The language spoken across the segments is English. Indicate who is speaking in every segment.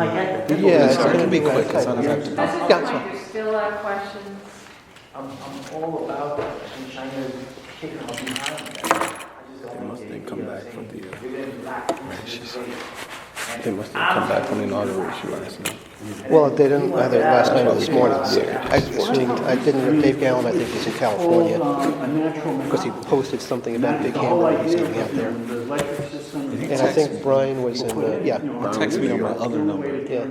Speaker 1: I get the
Speaker 2: Yeah,
Speaker 1: pickles.
Speaker 2: it's a
Speaker 1: Sorry.
Speaker 2: little bit quick, it's not
Speaker 3: At
Speaker 2: effective.
Speaker 3: this
Speaker 2: Councilman.
Speaker 3: point, there's still a question.
Speaker 1: I'm, I'm all about that, I'm trying to kick them up behind that. I just don't
Speaker 2: must
Speaker 1: like
Speaker 2: have
Speaker 1: the
Speaker 2: come
Speaker 1: idea of
Speaker 2: back from
Speaker 1: saying,
Speaker 2: the, uh,
Speaker 1: "You're gonna lack this and this and this."
Speaker 2: They must have come back from the inauguration last night.
Speaker 4: Well, they didn't, either last night or this morning. I assumed, I didn't, Dave Gallen, I think, was in California,
Speaker 5: a natural
Speaker 4: because he posted something about Big
Speaker 5: The whole
Speaker 4: Hammer, he's
Speaker 5: idea
Speaker 4: gonna be out
Speaker 5: of
Speaker 4: there.
Speaker 5: the electric system.
Speaker 4: And I think Brian was in, uh, yeah,
Speaker 2: Text me on my other number.
Speaker 4: yeah,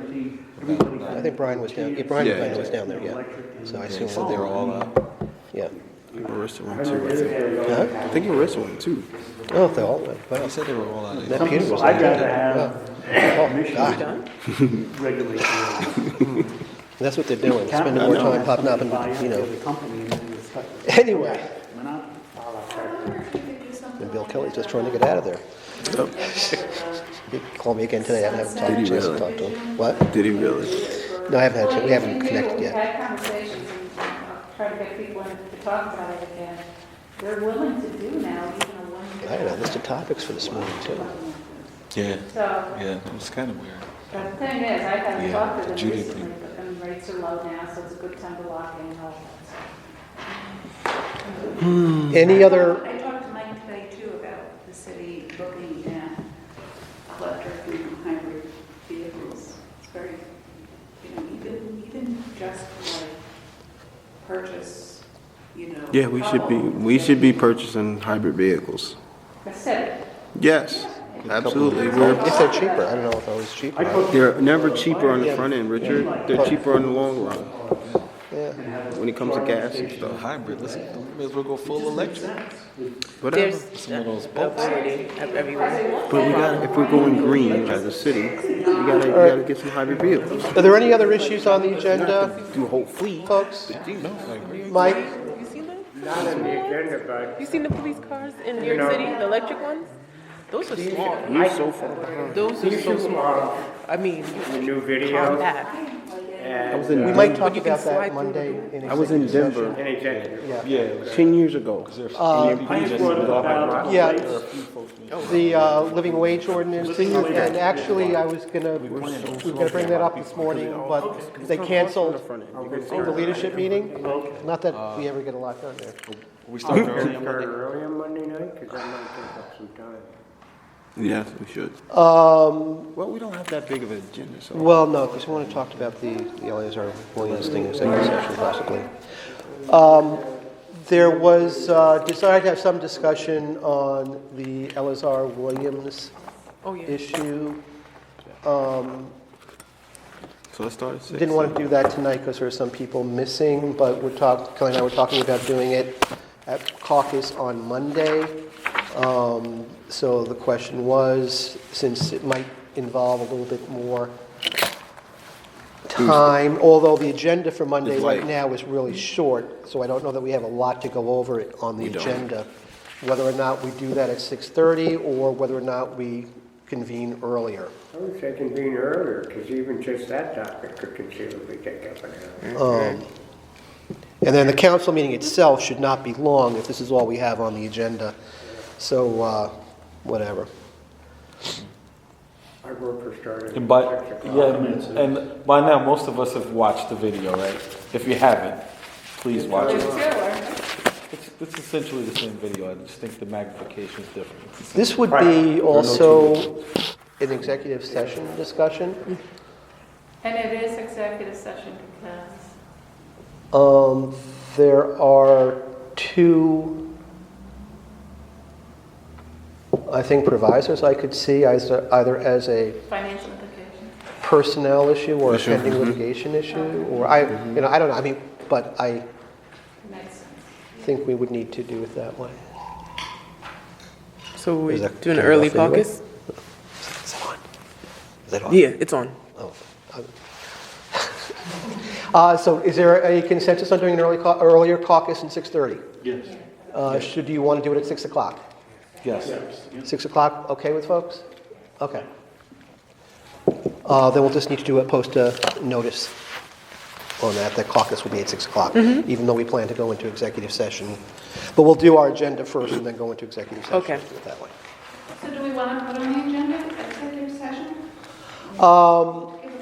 Speaker 4: I think Brian was down, yeah, Brian
Speaker 2: Yeah.
Speaker 4: Brian was down there, yeah. So I assume
Speaker 2: So
Speaker 4: that
Speaker 2: they're
Speaker 4: they're all,
Speaker 2: all out.
Speaker 4: yeah.
Speaker 2: Arista went too, I think.
Speaker 4: Huh?
Speaker 2: I think Arista went too.
Speaker 4: Oh, they all, went.
Speaker 2: He
Speaker 4: wow.
Speaker 2: said they were all out.
Speaker 4: That Peter was oh,
Speaker 5: I
Speaker 4: out
Speaker 5: gotta
Speaker 4: there.
Speaker 5: have emissions regulation.
Speaker 4: That's what they're doing, spending more time popping up and, you know. Anyway,
Speaker 3: I wonder if you could do something
Speaker 4: and Bill
Speaker 3: like
Speaker 4: Kelly's
Speaker 3: that.
Speaker 4: just trying to get out of there. Oh, He called me again today, I haven't had a
Speaker 2: Did he
Speaker 4: chance to
Speaker 2: really?
Speaker 4: talk to him. What?
Speaker 2: Did he really?
Speaker 4: No, I haven't had, a
Speaker 3: Well,
Speaker 4: chance. we
Speaker 3: you
Speaker 4: haven't
Speaker 3: can do-
Speaker 4: connected
Speaker 3: We've
Speaker 4: yet.
Speaker 3: had conversations and uh, try to get people in to talk about it again. They're willing to do now, even a one.
Speaker 4: I had a list of topics for this morning, too.
Speaker 2: Yeah,
Speaker 3: So,
Speaker 2: yeah, it was kind of weird.
Speaker 3: but the thing is, I haven't
Speaker 2: Yeah,
Speaker 3: talked to
Speaker 2: the
Speaker 3: them
Speaker 2: Judy
Speaker 3: recently,
Speaker 2: thing.
Speaker 3: but um, rates are low now, so it's a good time to lock in and all that. stuff.
Speaker 4: Any other,
Speaker 6: I talked to Mike today too about the city looking at electric and hybrid vehicles. It's very, you know, even, even just for like purchase, you know. Oh.
Speaker 7: Yeah, we should be, we should be purchasing hybrid vehicles.
Speaker 3: The city,
Speaker 7: Yes, absolutely. We're,
Speaker 4: if they're cheaper, I don't know if I was cheaper.
Speaker 7: they're never cheaper on the front end, Richard. They're cheaper on the long run
Speaker 4: Yeah.
Speaker 7: when it comes to gas and
Speaker 2: The
Speaker 7: stuff.
Speaker 2: hybrid, let's, may as well go full electric.
Speaker 7: Whatever.
Speaker 8: There's
Speaker 2: Some of those
Speaker 8: a variety of everywhere.
Speaker 7: But we got, if we're going green as a city, we gotta, we gotta get some hybrid vehicles.
Speaker 4: Are there any other issues on the agenda,
Speaker 7: Do whole fleet.
Speaker 4: folks?
Speaker 2: No, I agree.
Speaker 4: Mike?
Speaker 8: You seen those? You seen the police cars in New York City, the electric ones? Those are small.
Speaker 7: We're so far behind.
Speaker 8: Those are so small. I mean,
Speaker 5: New video
Speaker 8: compact.
Speaker 7: I was
Speaker 4: We
Speaker 7: in,
Speaker 4: might talk about that Monday in
Speaker 7: I was in
Speaker 4: executive session.
Speaker 7: Denver
Speaker 5: and executive.
Speaker 2: Yeah.
Speaker 7: ten years ago.
Speaker 4: Yeah, the uh, living wage ordinance, and actually, I was gonna, we were gonna bring that up this morning, but they canceled the leadership meeting. Not that we ever get a lot done there.
Speaker 2: We started early on Monday.
Speaker 5: Early on Monday night, because I might take up some time.
Speaker 7: Yes, we should.
Speaker 4: Um,
Speaker 7: Well, we don't have that big of an agenda, so.
Speaker 4: well, no, because we wanna talk about the the Eleazar Williams thing in executive session possibly. Um, There was, uh, desire to have some discussion on the Eleazar Williams
Speaker 8: Oh, yeah.
Speaker 4: issue. Um,
Speaker 7: So let's start at six.
Speaker 4: Didn't want to do that tonight because there are some people missing, but we're talking, Kelly and I were talking about doing it at caucus on Monday. Um, So the question was, since it might involve a little bit more time, although the agenda for Monday
Speaker 7: It's
Speaker 4: right
Speaker 7: light.
Speaker 4: now is really short, so I don't know that we have a lot to go over it on the
Speaker 7: We don't.
Speaker 4: agenda. Whether or not we do that at 6:30 or whether or not we convene earlier.
Speaker 5: I was thinking being earlier, because even just that topic could conceivably take up an hour.
Speaker 4: Um, And then the council meeting itself should not be long if this is all we have on the agenda. So, uh, whatever.
Speaker 5: Our worker started
Speaker 9: And by,
Speaker 5: at six
Speaker 9: yeah,
Speaker 5: o'clock.
Speaker 9: and- and by now, most of us have watched the video, right? If you haven't, please watch
Speaker 3: there's
Speaker 9: it.
Speaker 3: two, or-
Speaker 9: It's, it's essentially the same video, I just think the magnification is different. It's-
Speaker 4: This would be also an executive session discussion.
Speaker 3: and it is executive session because
Speaker 4: Um, There are two, I think provisos I could see, as a- either as a
Speaker 3: financial implications.
Speaker 4: personnel issue or a
Speaker 7: Issue,
Speaker 4: pending
Speaker 7: mhm.
Speaker 4: litigation issue, or I, you know, I don't know, I mean, but I
Speaker 3: Makes sense.
Speaker 4: think we would need to do it that way.
Speaker 8: So
Speaker 4: Is
Speaker 8: we
Speaker 4: that
Speaker 8: doing an
Speaker 4: turned
Speaker 8: early
Speaker 4: off anyway?
Speaker 8: caucus?
Speaker 4: Is that on? Is that on?
Speaker 8: Yeah, it's on.
Speaker 4: Oh. Uh, So is there a consensus on doing an early, cau- earlier caucus in 6:30?
Speaker 9: Yes.
Speaker 4: Uh, Should, do you want to do it at 6 o'clock?
Speaker 9: Yes.
Speaker 4: 6 o'clock, okay with folks? Okay. Uh, Then we'll just need to do a, post a notice on that, that caucus will be at 6 o'clock, even though we plan to go into executive session. But we'll do our agenda first and then go into executive session.
Speaker 8: Okay.
Speaker 4: Do it that way.
Speaker 3: So do we want to put on the agenda, executive session?
Speaker 4: Um,